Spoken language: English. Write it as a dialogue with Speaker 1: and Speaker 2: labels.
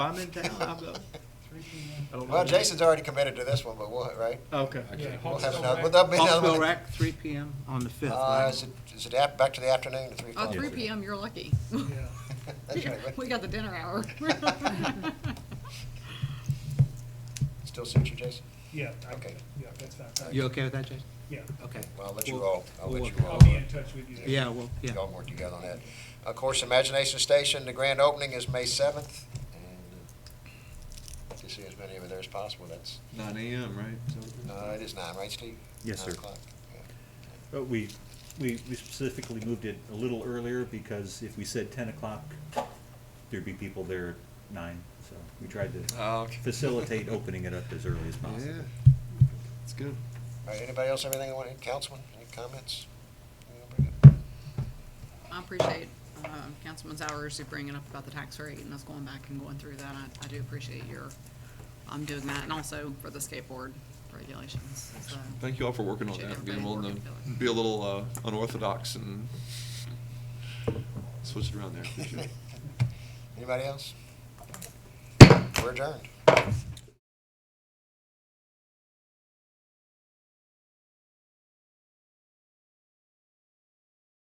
Speaker 1: I'm in town, I'm, uh, I don't know.
Speaker 2: Well, Jason's already committed to this one, but we'll, right?
Speaker 1: Okay.
Speaker 3: Yeah,
Speaker 2: We'll
Speaker 3: Hawksbill
Speaker 2: have another,
Speaker 3: Rec.
Speaker 2: will that be another
Speaker 1: Hawksbill
Speaker 2: one?
Speaker 1: Rec, three P M on the fifth.
Speaker 2: Uh, is
Speaker 1: right?
Speaker 2: it, is it ap- back to the afternoon, to three
Speaker 4: Oh,
Speaker 2: o'clock?
Speaker 4: three PM, you're lucky.
Speaker 3: Yeah.
Speaker 2: That's right,
Speaker 4: We
Speaker 2: but
Speaker 4: got the dinner hour.
Speaker 2: still suits you, Jason?
Speaker 3: Yeah, I-
Speaker 2: Okay.
Speaker 3: yeah, that's fine. Thank
Speaker 1: You okay with that, Jason?
Speaker 3: Yeah,
Speaker 1: Okay.
Speaker 2: Well, I'll let you
Speaker 1: We'll-
Speaker 2: all, I'll
Speaker 1: we'll
Speaker 2: let
Speaker 1: work
Speaker 2: you all.
Speaker 3: I'll
Speaker 2: uh,
Speaker 3: be in touch with you.
Speaker 1: Yeah, well, yeah.
Speaker 2: Y'all work together on that. Of course, Imagination Station, the grand opening is May seventh, and uh, to see as many of you there as possible, that's,
Speaker 5: Nine AM, right? Is that what it is?
Speaker 2: no, it is nine, right, Steve?
Speaker 6: Yes,
Speaker 2: Nine
Speaker 6: sir.
Speaker 2: o'clock, yeah.
Speaker 6: But we, we we specifically moved it a little earlier because if we said ten o'clock, there'd be people there at nine, so we tried to
Speaker 5: Oh, okay.
Speaker 6: facilitate opening it up as early as possible.
Speaker 5: Yeah, it's good.
Speaker 2: All right, anybody else, have anything they want, Councilman, any comments? You wanna bring up?
Speaker 4: I appreciate um, Councilman Zowers you bringing up about the tax rate and us going back and going through that. I, I do appreciate your, um doing that and also for the skateboard regulations, so.
Speaker 5: Thank you all for working on
Speaker 4: Appreciate
Speaker 5: that, being
Speaker 4: everybody
Speaker 5: willing
Speaker 4: working
Speaker 5: to
Speaker 4: together.
Speaker 5: be a little uh, unorthodox and switch it around there. Appreciate it.
Speaker 2: Anybody else? We're adjourned.